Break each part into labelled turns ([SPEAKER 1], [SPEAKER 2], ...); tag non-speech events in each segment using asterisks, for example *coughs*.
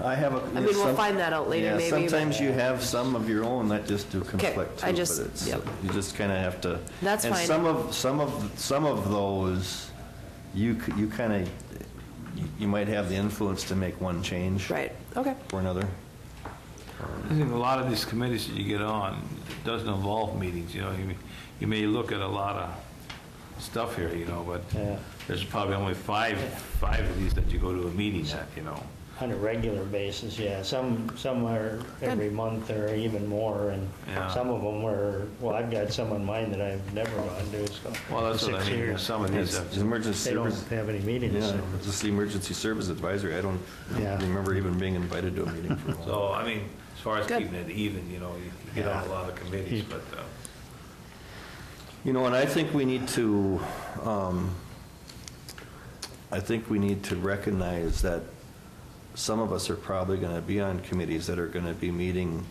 [SPEAKER 1] I have a.
[SPEAKER 2] I mean, we'll find that out later,
[SPEAKER 1] Yeah,
[SPEAKER 2] maybe, but-
[SPEAKER 1] Sometimes you have some of your own that just do conflict too.
[SPEAKER 2] I
[SPEAKER 1] but
[SPEAKER 2] just-
[SPEAKER 1] it's- uh,
[SPEAKER 2] yep.
[SPEAKER 1] You just kind of have to.
[SPEAKER 2] That's
[SPEAKER 1] and
[SPEAKER 2] fine.
[SPEAKER 1] some of, some of, some of those, you, c- you kind of, you might have the influence to make one change.
[SPEAKER 2] Right, okay.
[SPEAKER 1] Or another.
[SPEAKER 3] I think a lot of these committees that you get on it doesn't involve meetings, you know, you, you may look at a lot of stuff here, you know,
[SPEAKER 4] Yeah.
[SPEAKER 3] but there's probably only five, five of these that you go to a meeting at, you know.
[SPEAKER 4] On a regular basis, yeah. Some, some are every month or even more, and
[SPEAKER 3] Yeah.
[SPEAKER 4] some of them were, well, I've got some in mind that I've never gone to, so.
[SPEAKER 3] Well, that's
[SPEAKER 4] for
[SPEAKER 3] what I
[SPEAKER 4] six
[SPEAKER 3] mean,
[SPEAKER 4] years.
[SPEAKER 3] some of
[SPEAKER 1] It's
[SPEAKER 3] these, have-
[SPEAKER 1] emergency
[SPEAKER 4] They don't
[SPEAKER 1] service,
[SPEAKER 4] have any meetings,
[SPEAKER 1] yeah,
[SPEAKER 4] so.
[SPEAKER 1] it's just the emergency service advisory. I don't
[SPEAKER 4] Yeah.
[SPEAKER 1] remember even being invited to a meeting for a while.
[SPEAKER 3] so, I mean, as far as
[SPEAKER 2] Good.
[SPEAKER 3] keeping it even, you know, you you get on a lot of committees, but, uh,
[SPEAKER 1] You know, and I think we need to, um, I think we need to recognize that some of us are probably going to be on committees that are going to be meeting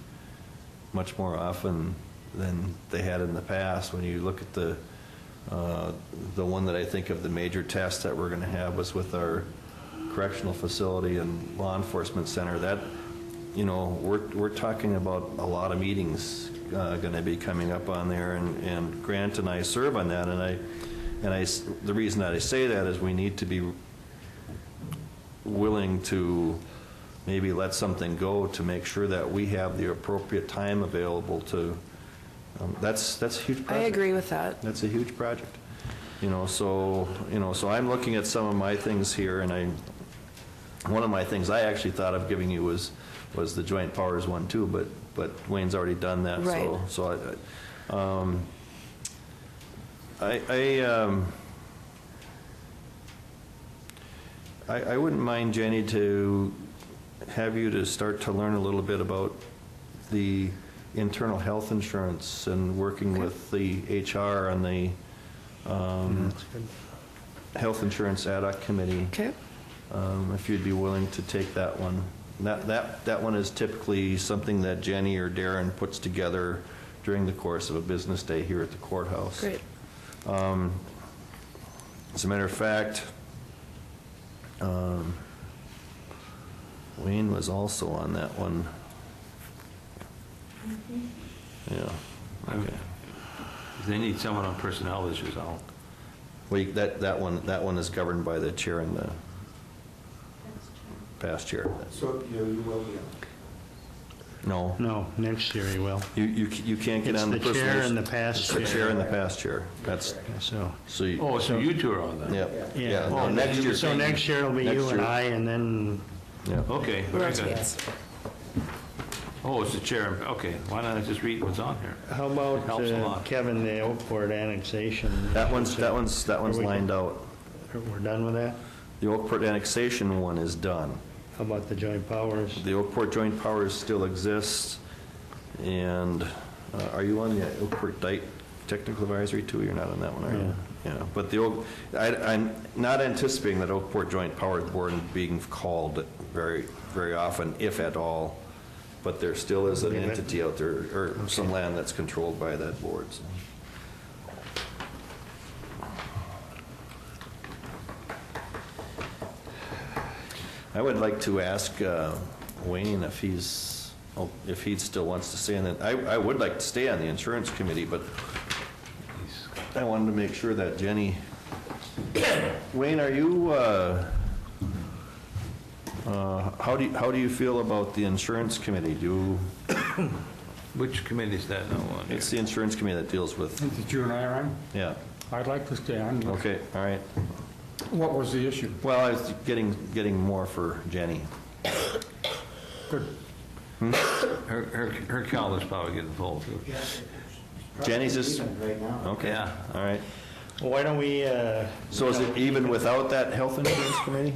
[SPEAKER 1] much more often than they had in the past. When you look at the, uh, the one that I think of, the major test that we're going to have was with our correctional facility and law enforcement center. That, you know, we're, we're talking about a lot of meetings going to be coming up on there, and, and Grant and I serve on that, and I, and I, s- the reason that I say that is we need to be willing to maybe let something go to make sure that we have the appropriate time available to, um, that's, that's a huge
[SPEAKER 2] I
[SPEAKER 1] project.
[SPEAKER 2] agree with that.
[SPEAKER 1] That's a huge project. You know, so, you know, so I'm looking at some of my things here, and I, one of my things I actually thought of giving you was, was the joint powers one too, but, but Wayne's already done that, so.
[SPEAKER 2] Right.
[SPEAKER 1] So I, I, um, I, I, um, I, I wouldn't mind, Jenny, to have you to start to learn a little bit about the internal health insurance and working with the HR and the um, Health Insurance Ad hoc Committee,
[SPEAKER 2] Okay,
[SPEAKER 1] um, if you'd be willing to take that one. That, that, that one is typically something that Jenny or Darren puts together during the course of a business day here at the courthouse. Um,
[SPEAKER 2] great.
[SPEAKER 1] As a matter of fact, um, Wayne was also on that one. Yeah, okay.
[SPEAKER 3] they need someone on personnel issues, I'll,
[SPEAKER 1] Well, you- that, that one, that one is governed by the chair and the past chair.
[SPEAKER 5] So you you will be on.
[SPEAKER 1] No,
[SPEAKER 4] No, next year he will.
[SPEAKER 1] you, you c- you can't get
[SPEAKER 4] It's
[SPEAKER 1] on the
[SPEAKER 4] the chair
[SPEAKER 1] personal...
[SPEAKER 4] and the past
[SPEAKER 1] It's the
[SPEAKER 4] chair.
[SPEAKER 1] chair and the past chair. That's,
[SPEAKER 4] So,
[SPEAKER 1] so, you-
[SPEAKER 3] oh, so you two are on that?
[SPEAKER 1] yeah,
[SPEAKER 4] Yeah.
[SPEAKER 1] yeah.
[SPEAKER 3] Oh,
[SPEAKER 1] no, next year-
[SPEAKER 4] so next year it'll be
[SPEAKER 1] Next
[SPEAKER 4] you and
[SPEAKER 1] year.
[SPEAKER 4] I, Oh. and then
[SPEAKER 1] Yeah.
[SPEAKER 3] Okay, very good.
[SPEAKER 2] Rotates.
[SPEAKER 3] Oh, it's the chair, okay, why don't I just read what's on here?
[SPEAKER 4] how
[SPEAKER 3] It
[SPEAKER 4] about
[SPEAKER 3] helps a
[SPEAKER 4] uh,
[SPEAKER 3] lot.
[SPEAKER 4] Kevin, the Oakport annexation?
[SPEAKER 1] That one's, that one's, that one's
[SPEAKER 4] Are we-
[SPEAKER 1] lined out.
[SPEAKER 4] We're done with that?
[SPEAKER 1] The Oakport annexation one is done.
[SPEAKER 4] How about the joint powers?
[SPEAKER 1] The Oakport Joint Powers still exists, and uh, are you on the Oakport Dyke Technical Advisory too? You're not on that one, are you? Yeah, but the, Oak- I, I'm not anticipating that Oakport Joint Powers Board being called very, very often, if at all, but there still is an
[SPEAKER 4] Okay, that-
[SPEAKER 1] entity out there, or some land that's controlled by that board, so. I would like to ask uh, Wayne if he's, oh, if he still wants to stay on that. I, I would like to stay on the insurance committee, but
[SPEAKER 3] He's-
[SPEAKER 1] I wanted to make sure that Jenny, *coughs* Wayne, are you, uh, uh, how do, you- how do you feel about the insurance committee? Do, you-
[SPEAKER 3] Which committee is that now on here?
[SPEAKER 1] it's the insurance committee that deals with,
[SPEAKER 6] Did you and I are on?
[SPEAKER 1] yeah,
[SPEAKER 6] I'd like to stay on.
[SPEAKER 1] okay, all right.
[SPEAKER 6] What was the issue?
[SPEAKER 1] Well, I was getting, getting more for Jenny.
[SPEAKER 6] Good.
[SPEAKER 3] Her, her, her calendar's probably getting full, too.
[SPEAKER 1] Jenny's just-
[SPEAKER 5] Probably even Right now.
[SPEAKER 1] Okay,
[SPEAKER 3] Yeah.
[SPEAKER 1] all right.
[SPEAKER 4] Well, Why don't we, uh,
[SPEAKER 1] So is it even without that health insurance committee?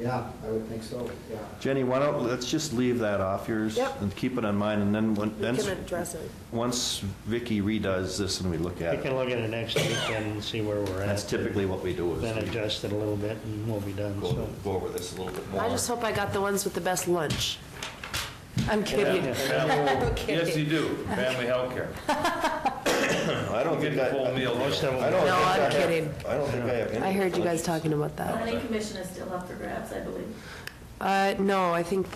[SPEAKER 5] Yeah, I would think so, yeah.
[SPEAKER 1] Jenny, why don't, let's just leave that off yours
[SPEAKER 2] Yep.
[SPEAKER 1] and keep it on mine, and then, when-
[SPEAKER 2] We
[SPEAKER 1] then,
[SPEAKER 2] can address it.
[SPEAKER 1] once Vicky redoes this and we look
[SPEAKER 4] we
[SPEAKER 1] at
[SPEAKER 4] can
[SPEAKER 1] it,
[SPEAKER 4] look at it next week and see where we're at.
[SPEAKER 1] that's typically what we do,
[SPEAKER 4] Then
[SPEAKER 1] is we
[SPEAKER 4] adjust it a little bit and we'll be done,
[SPEAKER 1] go
[SPEAKER 4] so.
[SPEAKER 1] go over this a little bit more.
[SPEAKER 2] I just hope I got the ones with the best lunch. I'm kidding. *laughs*
[SPEAKER 3] Yes, you do, family healthcare.
[SPEAKER 1] I don't
[SPEAKER 3] Get
[SPEAKER 1] think
[SPEAKER 3] the
[SPEAKER 1] I,
[SPEAKER 3] full meal
[SPEAKER 4] Most
[SPEAKER 3] deal.
[SPEAKER 4] of
[SPEAKER 1] I
[SPEAKER 4] them,
[SPEAKER 1] don't
[SPEAKER 2] No,
[SPEAKER 1] think I
[SPEAKER 2] I'm
[SPEAKER 1] have-
[SPEAKER 2] kidding.
[SPEAKER 1] I don't think I have any.
[SPEAKER 2] I heard you guys talking about that.
[SPEAKER 7] Planning commission is still up for grabs, I believe.
[SPEAKER 2] Uh, no, I think